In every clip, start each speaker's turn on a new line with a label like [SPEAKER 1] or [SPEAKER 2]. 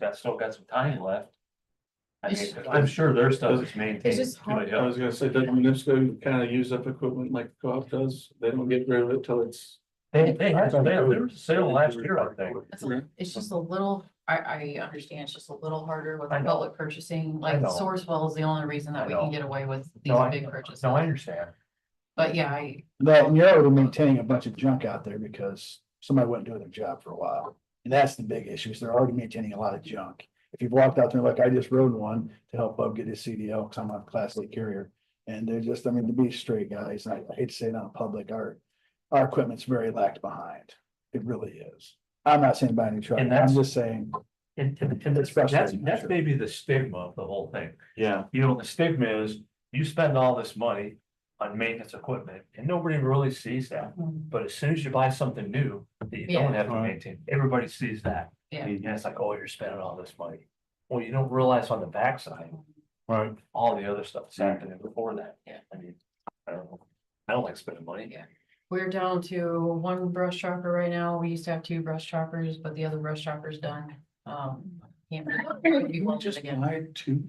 [SPEAKER 1] got, still got some time left. I mean,
[SPEAKER 2] It's-
[SPEAKER 1] I'm sure their stuff is maintained.
[SPEAKER 2] It's just hard.
[SPEAKER 3] I was gonna say, doesn't Munisco kind of use up equipment like co-op does? They don't get rid of it till it's.
[SPEAKER 1] They, they, had- they- there was a sale last year, I think.
[SPEAKER 2] It's a- It's just a little, I, I understand, it's just a little harder with
[SPEAKER 1] I know.
[SPEAKER 2] public purchasing,
[SPEAKER 1] I
[SPEAKER 2] like
[SPEAKER 1] know.
[SPEAKER 2] Sourcewell is the only reason
[SPEAKER 1] I
[SPEAKER 2] that we can
[SPEAKER 1] know.
[SPEAKER 2] get away with these
[SPEAKER 1] No, I-
[SPEAKER 2] big purchases.
[SPEAKER 1] No, I understand.
[SPEAKER 2] But yeah, I,
[SPEAKER 4] That, and you're already maintaining a bunch of junk out there because somebody wasn't doing their job for a while. And that's the big issue, is they're already maintaining a lot of junk. If you've walked out there like I just rode one to help Bub get his CDL, cause I'm a class A carrier. And they're just, I mean, to be straight guys, I I hate to say it on public, our, our equipment's very lacked behind. It really is. I'm not saying buy a new truck,
[SPEAKER 1] And
[SPEAKER 4] I'm
[SPEAKER 1] that's-
[SPEAKER 4] just saying,
[SPEAKER 1] And, and, and that's,
[SPEAKER 4] It's frustrating,
[SPEAKER 1] that's
[SPEAKER 4] sure.
[SPEAKER 1] maybe the stigma of the whole thing.
[SPEAKER 3] Yeah.
[SPEAKER 1] You know, the stigma is you spend all this money on maintenance equipment and nobody really sees that. But as soon as you buy something new that you don't
[SPEAKER 2] Yeah.
[SPEAKER 1] have to
[SPEAKER 3] Right.
[SPEAKER 1] maintain, everybody sees that.
[SPEAKER 2] Yeah.
[SPEAKER 1] And it's like, oh, you're spending all this money. Well, you don't realize on the backside,
[SPEAKER 3] Right.
[SPEAKER 1] all the other stuff that's happening before that.
[SPEAKER 2] Yeah.
[SPEAKER 1] I mean, I don't know. I don't like spending money.
[SPEAKER 2] Yeah. we're down to one brush chopper right now. We used to have two brush choppers, but the other brush chopper's done. Um. can't be one
[SPEAKER 3] Just
[SPEAKER 2] again.
[SPEAKER 3] buy two.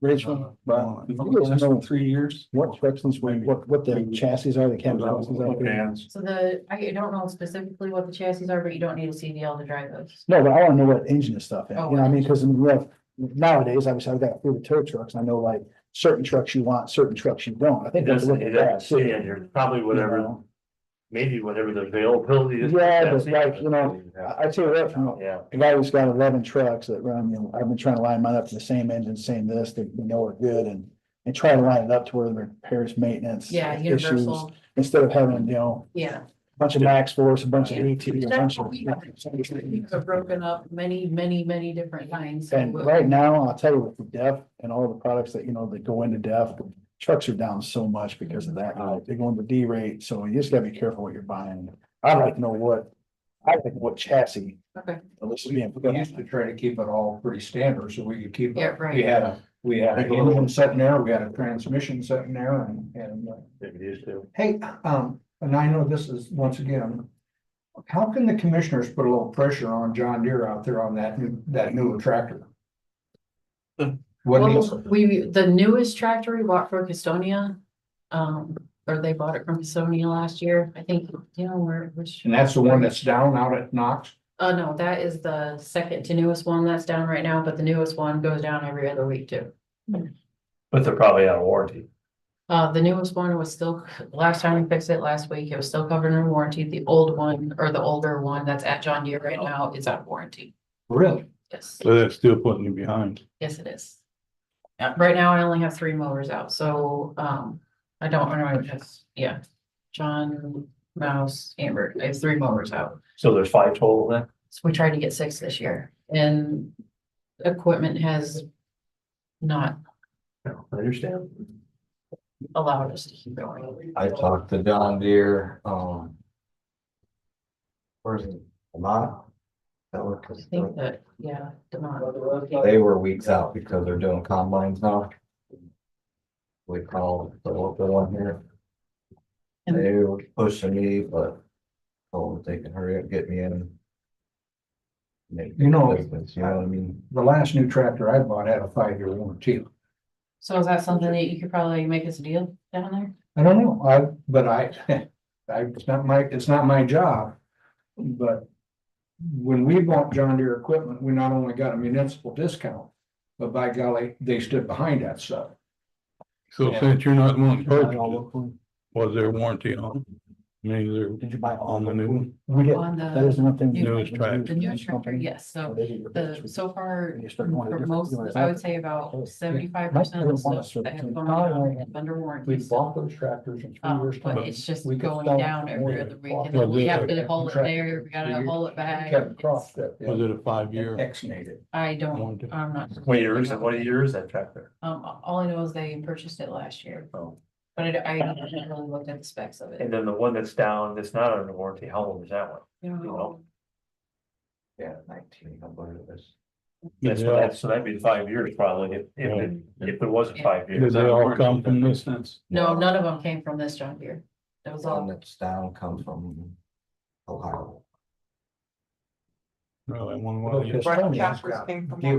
[SPEAKER 4] Rachel, well,
[SPEAKER 3] Well,
[SPEAKER 4] you guys
[SPEAKER 3] last
[SPEAKER 4] know
[SPEAKER 3] three years.
[SPEAKER 4] what directions, we- what, what the chassis are, the cab chassis are.
[SPEAKER 3] Vans.
[SPEAKER 2] So the, I don't know specifically what the chassis are, but you don't need a CDL to drive those.
[SPEAKER 4] No, but I wanna know what engine and stuff, is, you know,
[SPEAKER 2] Oh,
[SPEAKER 4] what I mean, cause in real- nowadays, obviously, I've got through the tow trucks, and I know like certain trucks you want, certain trucks you don't, I
[SPEAKER 1] It
[SPEAKER 4] think. that's
[SPEAKER 1] doesn't, it doesn't say in here, probably whatever, maybe whatever the availability is.
[SPEAKER 4] Yeah, but
[SPEAKER 1] That's it.
[SPEAKER 4] like, you know, I, I tell you what, you know,
[SPEAKER 1] Yeah,
[SPEAKER 4] I've always got eleven trucks that run, you know, I've been trying to line mine up to the same engine, same this, that we know are good, and, and try to line it up to where the repairs, maintenance.
[SPEAKER 2] Yeah,
[SPEAKER 4] issues,
[SPEAKER 2] universal,
[SPEAKER 4] Instead of having, you know,
[SPEAKER 2] yeah.
[SPEAKER 4] a bunch of max force, a bunch of
[SPEAKER 2] Yeah.
[SPEAKER 4] AT, a bunch
[SPEAKER 2] That's
[SPEAKER 4] of.
[SPEAKER 2] what we have. We've broken up many, many, many different lines.
[SPEAKER 4] And right now, I'll tell you with the DEF and all the products that, you know, that go into DEF, trucks are down so much because of that. Like, They go into D rate, so you just gotta be careful what you're buying. I'd like to know what, I'd like what chassis,
[SPEAKER 2] Okay,
[SPEAKER 4] at least being.
[SPEAKER 5] We used to try to keep it all pretty standard, so we could keep.
[SPEAKER 2] Yeah,
[SPEAKER 5] up.
[SPEAKER 2] right.
[SPEAKER 5] We had a, we had
[SPEAKER 3] Like
[SPEAKER 5] a
[SPEAKER 3] a little-
[SPEAKER 5] engine sitting there, we had a transmission sitting there and, and, uh,
[SPEAKER 3] Maybe these two.
[SPEAKER 5] hey, um, and I know this is, once again. How can the commissioners put a little pressure on John Deere out there on that, new that newer tractor? What needs,
[SPEAKER 2] well, we, the newest tractor we bought for Gastonia, um, or they bought it from Gastonia last year, I think, you know, where, which.
[SPEAKER 5] and that's the one that's down out at Knox?
[SPEAKER 2] Uh, no, that is the second to newest one that's down right now, but the newest one goes down every other week too.
[SPEAKER 1] but they're probably out of warranty.
[SPEAKER 2] Uh, the newest one was still, last time we fixed it last week, it was still covered in warranty. The old one, or the older one that's at John Deere right now is out of warranty.
[SPEAKER 5] Really?
[SPEAKER 2] Yes,
[SPEAKER 3] So that's still putting you behind.
[SPEAKER 2] yes, it is. Yeah, right now I only have three mowers out, so, um, I don't, I don't, just, yeah. John, Mouse, Amber, I have three mowers out.
[SPEAKER 1] So there's five total then?
[SPEAKER 2] So we tried to get six this year and equipment has not
[SPEAKER 1] No, I understand.
[SPEAKER 2] allowed us to keep going.
[SPEAKER 6] I talked to John Deere, um. Where's it, Vermont? That work
[SPEAKER 2] I think that, yeah, Demont.
[SPEAKER 6] They were weeks out because they're doing combines now. We called the local one here. They were pushing me, but told them they can hurry up, get me in. Make
[SPEAKER 5] You know,
[SPEAKER 6] business, you know what I mean?
[SPEAKER 5] the last new tractor I bought had a five-year warranty.
[SPEAKER 2] So is that something that you could probably make us a deal down there?
[SPEAKER 5] I don't know, I, but I, I, it's not my, it's not my job, but. When we bought John Deere equipment, we not only got a municipal discount, but by golly, they stood behind that stuff.
[SPEAKER 7] So
[SPEAKER 5] Yeah.
[SPEAKER 7] since you're not one person,
[SPEAKER 4] Did
[SPEAKER 7] was there warranty on? I mean, there
[SPEAKER 4] you buy all
[SPEAKER 7] on the
[SPEAKER 4] the
[SPEAKER 7] new one?
[SPEAKER 4] We get,
[SPEAKER 2] On
[SPEAKER 4] that
[SPEAKER 2] the,
[SPEAKER 4] is one thing.
[SPEAKER 7] Newest tractor.
[SPEAKER 2] the new tractor, yes, so the, so far, for most, I would say
[SPEAKER 5] Oh,
[SPEAKER 2] about seventy-five percent of the stuff that has gone on is under warranty.
[SPEAKER 5] We bought those tractors in three
[SPEAKER 2] Um,
[SPEAKER 5] years. time.
[SPEAKER 2] but it's just
[SPEAKER 5] We could
[SPEAKER 2] going
[SPEAKER 5] sell
[SPEAKER 2] down
[SPEAKER 5] more
[SPEAKER 2] every
[SPEAKER 5] than
[SPEAKER 2] other
[SPEAKER 5] it
[SPEAKER 2] week,
[SPEAKER 5] cost.
[SPEAKER 2] and then we
[SPEAKER 7] Yeah,
[SPEAKER 2] have to
[SPEAKER 7] the-
[SPEAKER 2] haul it there, we gotta
[SPEAKER 5] Figure-
[SPEAKER 2] haul it back.
[SPEAKER 5] Kevin Cross
[SPEAKER 2] It's-
[SPEAKER 5] did. yeah,
[SPEAKER 7] Was it a five-year?
[SPEAKER 5] Exonerated it.
[SPEAKER 2] I don't,
[SPEAKER 7] warranty?
[SPEAKER 2] I'm not.
[SPEAKER 1] What year is it? What year is that tractor?
[SPEAKER 2] Um, all I know is they purchased it last year.
[SPEAKER 1] Oh.
[SPEAKER 2] But I, d- I haven't really looked at the specs of
[SPEAKER 1] And
[SPEAKER 2] it.
[SPEAKER 1] then the one that's down, that's not under warranty, how old is that one?
[SPEAKER 2] You know,
[SPEAKER 6] Yeah, nineteen, I believe it is.
[SPEAKER 1] That's,
[SPEAKER 7] Yeah.
[SPEAKER 1] that's, so that'd be five years probably, if, if, it- if it wasn't five
[SPEAKER 7] Did
[SPEAKER 1] years.
[SPEAKER 7] they all come from this? That's
[SPEAKER 2] No, none of them came from this John Deere. It was
[SPEAKER 6] One
[SPEAKER 2] all,
[SPEAKER 6] that's down comes from Ohio.
[SPEAKER 8] Really, one of the.
[SPEAKER 5] Right, Casper's
[SPEAKER 3] came from
[SPEAKER 5] Do you-